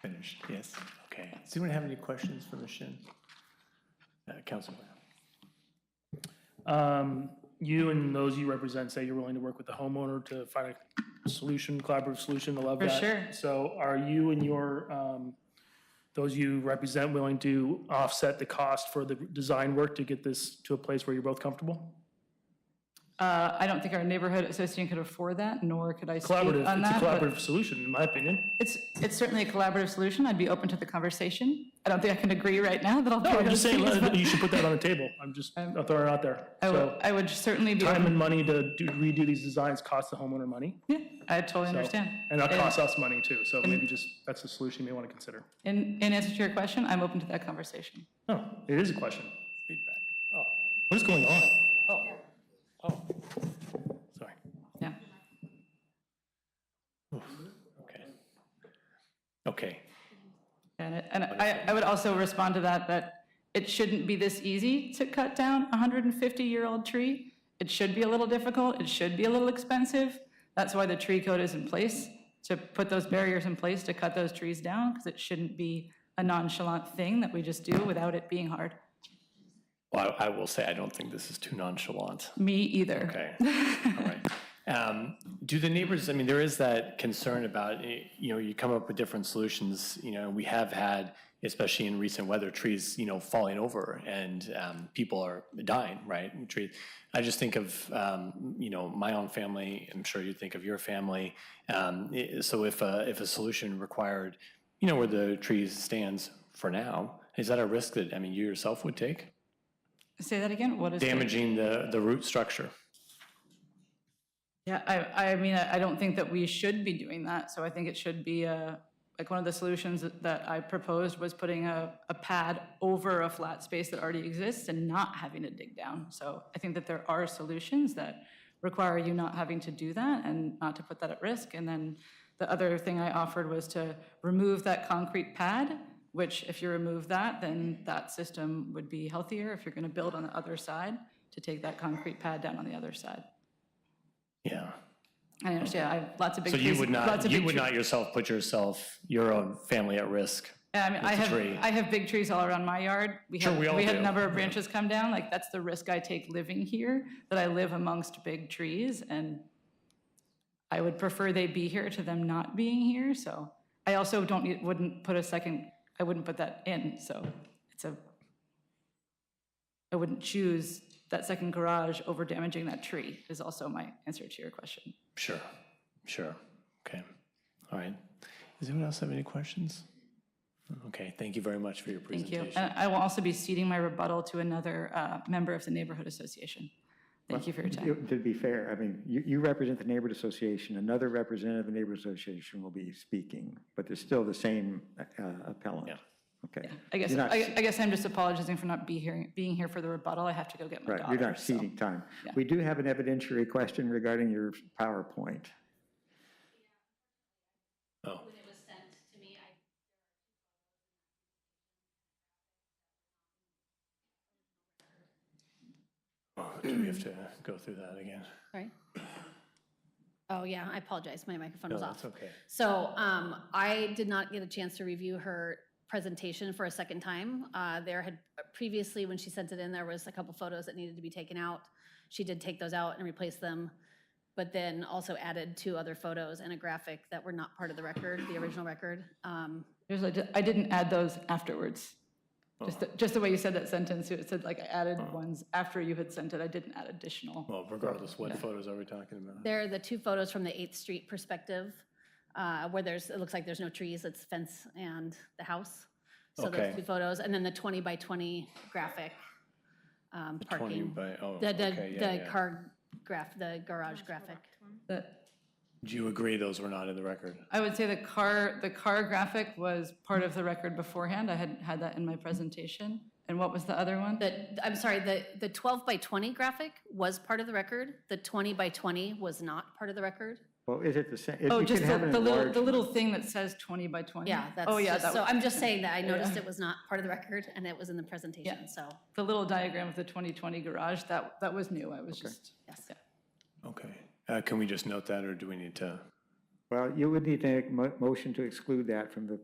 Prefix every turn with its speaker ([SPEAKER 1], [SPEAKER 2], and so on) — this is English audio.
[SPEAKER 1] Finished, yes, okay. Does anyone have any questions for Ms. Shin? Uh, Councilman Brown?
[SPEAKER 2] Um, You and those you represent say you're willing to work with the homeowner to find a solution, collaborative solution, I love
[SPEAKER 3] For
[SPEAKER 2] that.
[SPEAKER 3] sure.
[SPEAKER 2] So are you and your, um, those you represent willing to offset the cost for the design work to get this to a place where you're both comfortable?
[SPEAKER 3] Uh, I don't think our neighborhood association could afford that, nor could I speak on
[SPEAKER 2] Collaborative,
[SPEAKER 3] that.
[SPEAKER 2] it's a
[SPEAKER 3] but
[SPEAKER 2] collaborative solution, in my opinion.
[SPEAKER 3] It's, it's certainly a collaborative solution. I'd be open to the conversation. I don't think I can agree right now that I'll do
[SPEAKER 2] No, I'm just saying,
[SPEAKER 3] those things,
[SPEAKER 2] uh,
[SPEAKER 3] but
[SPEAKER 2] you should put that on the table. I'm just I'll throw it out there.
[SPEAKER 3] I would,
[SPEAKER 2] So
[SPEAKER 3] I would certainly be,
[SPEAKER 2] time
[SPEAKER 3] open-
[SPEAKER 2] and money to do- redo these designs costs the homeowner money.
[SPEAKER 3] yeah, I totally
[SPEAKER 2] So-
[SPEAKER 3] understand.
[SPEAKER 2] And that costs us money too, so maybe just, that's a solution you may want to consider.
[SPEAKER 3] In, in answer to your question, I'm open to that conversation.
[SPEAKER 2] No, it is a question.
[SPEAKER 1] Feedback. Oh,
[SPEAKER 2] What is going on?
[SPEAKER 1] oh, sorry,
[SPEAKER 3] Yeah.
[SPEAKER 1] okay. Okay,
[SPEAKER 3] And it- and I, I would also respond to that, that it shouldn't be this easy to cut down a 150-year-old tree. It should be a little difficult, it should be a little expensive. That's why the tree code is in place, to put those barriers in place to cut those trees down, because it shouldn't be a nonchalant thing that we just do without it being hard.
[SPEAKER 1] well, I I will say, I don't think this is too nonchalant.
[SPEAKER 3] Me either.
[SPEAKER 1] Okay, all right. Um, Do the neighbors, I mean, there is that concern about, eh, you know, you come up with different solutions, you know, we have had, especially in recent weather, trees, you know, falling over and um, people are dying, right? Tree- I just think of, um, you know, my own family, I'm sure you think of your family. Um, eh, So if, a- if a solution required, you know, where the trees stands for now, is that a risk that, I mean, you yourself would take?
[SPEAKER 3] Say that again, what is? it?
[SPEAKER 1] Damaging the, the root structure?
[SPEAKER 3] Yeah, I, I mean, I I don't think that we should be doing that, so I think it should be a, like, one of the solutions that- that I proposed was putting a, a pad over a flat space that already exists and not having to dig down. So I think that there are solutions that require you not having to do that and not to put that at risk. And then the other thing I offered was to remove that concrete pad, which if you remove that, then that system would be healthier if you're gonna build on the other side, to take that concrete pad down on the other side.
[SPEAKER 1] Yeah.
[SPEAKER 3] I understand, I have lots of big
[SPEAKER 1] So
[SPEAKER 3] trees.
[SPEAKER 1] you would
[SPEAKER 3] lots
[SPEAKER 1] not,
[SPEAKER 3] of
[SPEAKER 1] you
[SPEAKER 3] big
[SPEAKER 1] would
[SPEAKER 3] tre-
[SPEAKER 1] not yourself put yourself, your own family at risk?
[SPEAKER 3] Yeah, I mean, I
[SPEAKER 1] with the tree.
[SPEAKER 3] have, I have big trees all around my yard. We
[SPEAKER 1] Sure,
[SPEAKER 3] have,
[SPEAKER 1] we all
[SPEAKER 3] we have
[SPEAKER 1] do,
[SPEAKER 3] a number of
[SPEAKER 1] yeah.
[SPEAKER 3] branches come down, like, that's the risk I take living here, that I live amongst big trees, and I would prefer they be here to them not being here, so. I also don't, need- wouldn't put a second, I wouldn't put that in, so it's a, I wouldn't choose that second garage over damaging that tree, is also my answer to your question.
[SPEAKER 1] Sure, sure. Okay, all right. Does anyone else have any questions? Okay, thank you very much for your
[SPEAKER 3] Thank you.
[SPEAKER 4] Uh,
[SPEAKER 1] presentation.
[SPEAKER 3] And I will also be ceding my rebuttal to another uh, member of the neighborhood association. Thank you for your time.
[SPEAKER 5] You- To be fair, I mean, you, you represent the neighborhood association, another representative of the neighborhood association will be speaking, but they're still the same uh, appellant. Okay.
[SPEAKER 3] I guess,
[SPEAKER 5] You're not-
[SPEAKER 3] I I guess I'm just apologizing for not be here, being here for the rebuttal. I have to go get my
[SPEAKER 5] Right, you're
[SPEAKER 3] daughter.
[SPEAKER 5] not ceding time. We do have an evidentiary question regarding your PowerPoint.
[SPEAKER 1] Oh,
[SPEAKER 4] when it was sent to me, I
[SPEAKER 1] oh, do we have to go through that again?
[SPEAKER 4] Right. Oh, yeah, I apologize. My microphone
[SPEAKER 1] No,
[SPEAKER 4] was
[SPEAKER 1] that's
[SPEAKER 4] off.
[SPEAKER 1] okay.
[SPEAKER 4] So um, I did not get a chance to review her presentation for a second time. Uh, There had, previously, when she sent it in, there was a couple photos that needed to be taken out. She did take those out and replace them, but then also added two other photos and a graphic that were not part of the record, the original record. Um,
[SPEAKER 3] Here's what I did- I didn't add those afterwards.
[SPEAKER 5] Oh.
[SPEAKER 3] Just, the- just the way you said that sentence, it said like I added ones after you had sent it. I didn't add additional.
[SPEAKER 1] Well, regardless, what photos are we talking about?
[SPEAKER 4] There are the two photos from the 8th Street perspective, uh, where there's, it looks like there's no trees, it's fence and the house. So
[SPEAKER 1] Okay.
[SPEAKER 4] those two photos, and then the 20 by 20 graphic um,
[SPEAKER 1] Twenty
[SPEAKER 4] parking.
[SPEAKER 1] by, oh,
[SPEAKER 4] The,
[SPEAKER 1] okay,
[SPEAKER 4] the,
[SPEAKER 1] yeah,
[SPEAKER 4] the
[SPEAKER 1] yeah.
[SPEAKER 4] car graph, the garage graphic.
[SPEAKER 3] That-
[SPEAKER 1] Do you agree those were not in the record?
[SPEAKER 3] I would say the car, the car graphic was part of the record beforehand. I had had that in my presentation. And what was the other one?
[SPEAKER 4] The, I'm sorry, the, the 12 by 20 graphic was part of the record, the 20 by 20 was not part of the record.
[SPEAKER 5] Well, is it the same? if
[SPEAKER 3] Oh,
[SPEAKER 5] you
[SPEAKER 3] just
[SPEAKER 5] can
[SPEAKER 3] the,
[SPEAKER 5] have an
[SPEAKER 3] the little,
[SPEAKER 5] enlarged-
[SPEAKER 3] the little thing that says 20 by 20?
[SPEAKER 4] Yeah, that's
[SPEAKER 3] Oh, yeah,
[SPEAKER 4] just,
[SPEAKER 3] that
[SPEAKER 4] so
[SPEAKER 3] was,
[SPEAKER 4] I'm just saying that I noticed it was not part of the record, and it was in the
[SPEAKER 3] Yeah.
[SPEAKER 4] presentation, so,
[SPEAKER 3] the little diagram of the 2020 garage, that, that was new. I was just,
[SPEAKER 4] yes.
[SPEAKER 1] Okay, Uh, can we just note that, or do we need to?
[SPEAKER 5] Well, you would need to make a mo- motion to exclude that from the